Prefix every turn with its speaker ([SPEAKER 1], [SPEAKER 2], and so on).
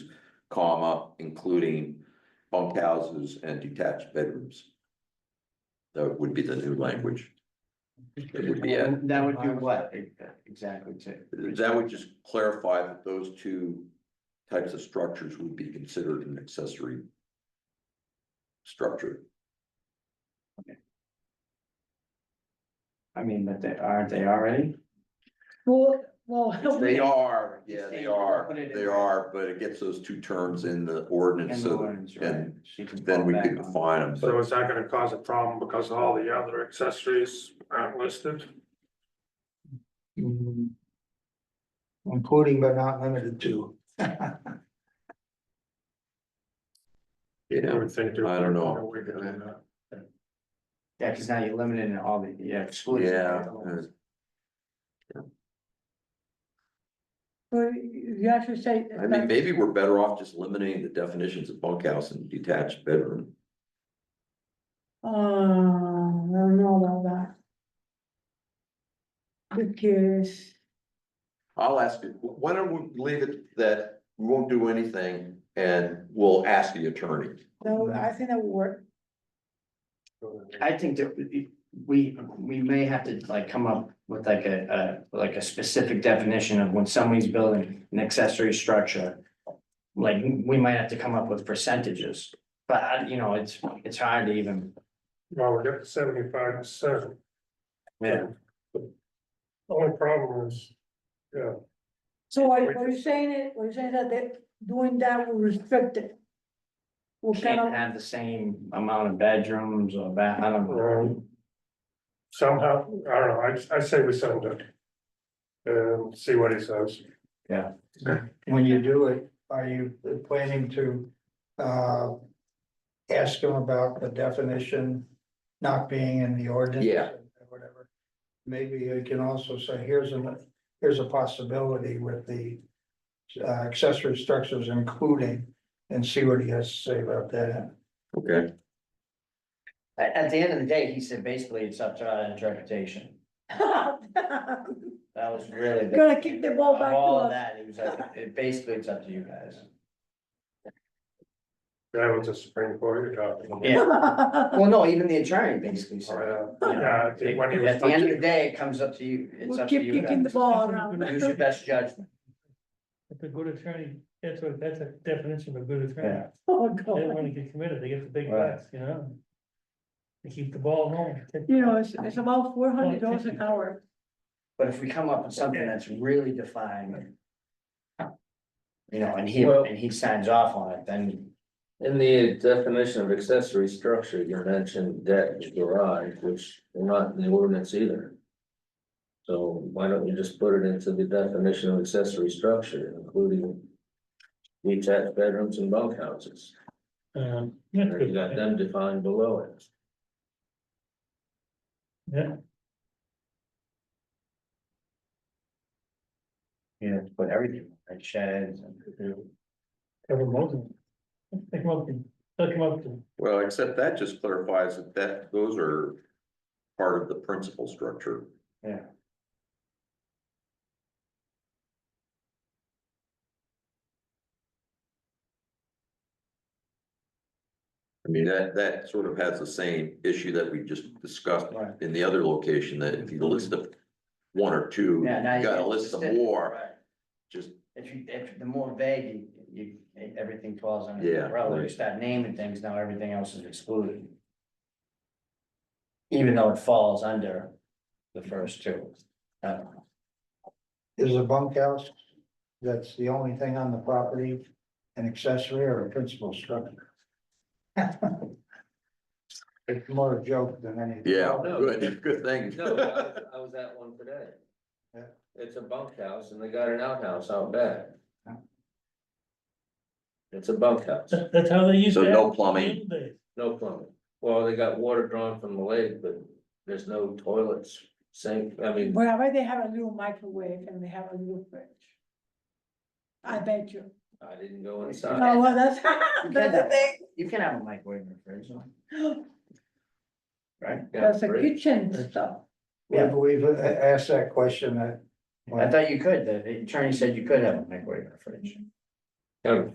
[SPEAKER 1] comma, including bunk houses and detached bedrooms. That would be the new language. It would be, uh,
[SPEAKER 2] That would do what exactly to?
[SPEAKER 1] that would just clarify that those two types of structures would be considered an accessory structure.
[SPEAKER 2] I mean, but they, aren't they already?
[SPEAKER 3] Well, well.
[SPEAKER 1] They are, yeah, they
[SPEAKER 2] Stay-
[SPEAKER 1] are,
[SPEAKER 2] put it in
[SPEAKER 1] they
[SPEAKER 2] there.
[SPEAKER 1] are, but it gets those two terms in the
[SPEAKER 2] And
[SPEAKER 1] ordinance,
[SPEAKER 2] the
[SPEAKER 1] so
[SPEAKER 2] ones, right?
[SPEAKER 1] and
[SPEAKER 2] She can
[SPEAKER 1] then
[SPEAKER 2] fall
[SPEAKER 1] we
[SPEAKER 2] back
[SPEAKER 1] could
[SPEAKER 2] on.
[SPEAKER 1] define them, but
[SPEAKER 4] So is that gonna cause a problem because all the other accessories aren't listed?
[SPEAKER 5] Mm. Including but not limited to.
[SPEAKER 4] I
[SPEAKER 1] yeah,
[SPEAKER 4] would think. there's
[SPEAKER 1] I don't know.
[SPEAKER 4] a way to do that.
[SPEAKER 2] Yeah, cause now you're limiting all the, yeah, excluding.
[SPEAKER 1] yeah. uh,
[SPEAKER 3] Well, you actually say.
[SPEAKER 1] I mean, maybe we're better off just eliminating the definitions of bunkhouse and detached bedroom.
[SPEAKER 3] Uh, I don't know about that. Because,
[SPEAKER 1] I'll ask you, wh- why don't we leave it that we won't do anything and we'll ask the attorney.
[SPEAKER 3] no, I think that would work.
[SPEAKER 2] I think that we- we, we may have to like come up with like a, a, like a specific definition of when somebody's building an accessory structure. Like, we might have to come up with percentages, but I- you know, it's, it's hard to even.
[SPEAKER 4] Well, we got seventy-five percent.
[SPEAKER 2] Yeah.
[SPEAKER 4] Only problem is, yeah,
[SPEAKER 3] So what what you're saying is, what you're saying is that they, doing that will restrict it. Will kind
[SPEAKER 2] Can't
[SPEAKER 3] of,
[SPEAKER 2] have the same amount of bedrooms or bath, I don't know.
[SPEAKER 4] Um, somehow, I don't know, I, I say we send it. And see what he says.
[SPEAKER 5] When you do it, are you planning to uh. Ask them about the definition not being in the ordinance?
[SPEAKER 1] Yeah.
[SPEAKER 5] or Whatever. Maybe you can also say, here's a, here's a possibility with the. Uh, accessory structures including, and see what he has to say about that.
[SPEAKER 1] Okay.
[SPEAKER 2] At, at the end of the day, he said basically it's up to our interpretation. That was really. the-
[SPEAKER 3] Gonna kick the ball back
[SPEAKER 2] Of
[SPEAKER 3] to
[SPEAKER 2] All of
[SPEAKER 3] us.
[SPEAKER 2] that, it was like, it basically it's up to you guys.
[SPEAKER 4] That was a Supreme Court you're talking about.
[SPEAKER 2] Yeah,
[SPEAKER 3] Uh,
[SPEAKER 2] well, no, even the attorney basically said.
[SPEAKER 4] Uh, Yeah, I think when he was
[SPEAKER 2] At the end of the day, it comes up to you, it's
[SPEAKER 3] We'll
[SPEAKER 2] up to
[SPEAKER 3] keep
[SPEAKER 2] you
[SPEAKER 3] kicking the
[SPEAKER 2] guys.
[SPEAKER 3] ball around.
[SPEAKER 2] Use your best judgment.
[SPEAKER 6] If a good attorney, that's a, that's a definition of a good attorney.
[SPEAKER 2] Yeah.
[SPEAKER 3] Oh,
[SPEAKER 6] They don't
[SPEAKER 3] God.
[SPEAKER 6] wanna get committed, they get the big
[SPEAKER 2] Right.
[SPEAKER 6] bucks, you know? They keep the ball home.
[SPEAKER 3] You know, it's, it's about four hundred dollars an hour.
[SPEAKER 2] But if we come up with something that's really defined. You know, and he,
[SPEAKER 7] Well-
[SPEAKER 2] and he signs off on it, then,
[SPEAKER 7] In the definition of accessory structure, you mentioned deck and garage, which are not in the ordinance either. So why don't you just put it into the definition of accessory structure, including detached bedrooms and bunkhouses?
[SPEAKER 6] Um, yeah,
[SPEAKER 7] And You got them defined below it.
[SPEAKER 6] yeah,
[SPEAKER 2] you know, put everything, like sheds and.
[SPEAKER 6] cover most of them. They come up, to- they come up to,
[SPEAKER 1] Well, except that just clarifies that that, those are part of the principal structure.
[SPEAKER 2] Yeah.
[SPEAKER 1] I mean, that, that sort of has the same issue that we just discussed
[SPEAKER 2] Right.
[SPEAKER 1] in the other location, that if you list of one or two,
[SPEAKER 2] Yeah, now
[SPEAKER 1] you
[SPEAKER 2] you
[SPEAKER 1] gotta
[SPEAKER 2] get
[SPEAKER 1] list some
[SPEAKER 2] specific.
[SPEAKER 1] more, just
[SPEAKER 2] If you, if the more vague you, you, everything falls under
[SPEAKER 1] Yeah,
[SPEAKER 2] the umbrella, you
[SPEAKER 1] right.
[SPEAKER 2] start naming things, now everything else is excluded. Even though it falls under the first two. Uh,
[SPEAKER 5] Is a bunkhouse, that's the only thing on the property, an accessory or a principal structure? It's more a joke than anything.
[SPEAKER 1] Yeah,
[SPEAKER 7] No.
[SPEAKER 1] good, good thing.
[SPEAKER 7] No, I was at one today.
[SPEAKER 5] Yeah.
[SPEAKER 7] It's a bunkhouse and they got an outhouse out back.
[SPEAKER 5] Yeah.
[SPEAKER 7] It's a bunkhouse.
[SPEAKER 6] that- that's how they use.
[SPEAKER 1] So
[SPEAKER 6] that.
[SPEAKER 1] no plumbing.
[SPEAKER 7] No plumbing. Well, they got water drawn from the lake, but there's no toilets, sink, I mean,
[SPEAKER 3] But I bet they have a little microwave and they have a little fridge. I bet you.
[SPEAKER 7] I didn't go
[SPEAKER 3] Oh,
[SPEAKER 7] inside.
[SPEAKER 3] well, that's, that's the thing.
[SPEAKER 2] You can have a microwave in the fridge, no? right?
[SPEAKER 3] There's a
[SPEAKER 7] great.
[SPEAKER 3] kitchen stuff.
[SPEAKER 5] We've, we've a- asked that question at.
[SPEAKER 2] I thought you could, the attorney said you could have a microwave in the fridge.
[SPEAKER 7] Kind of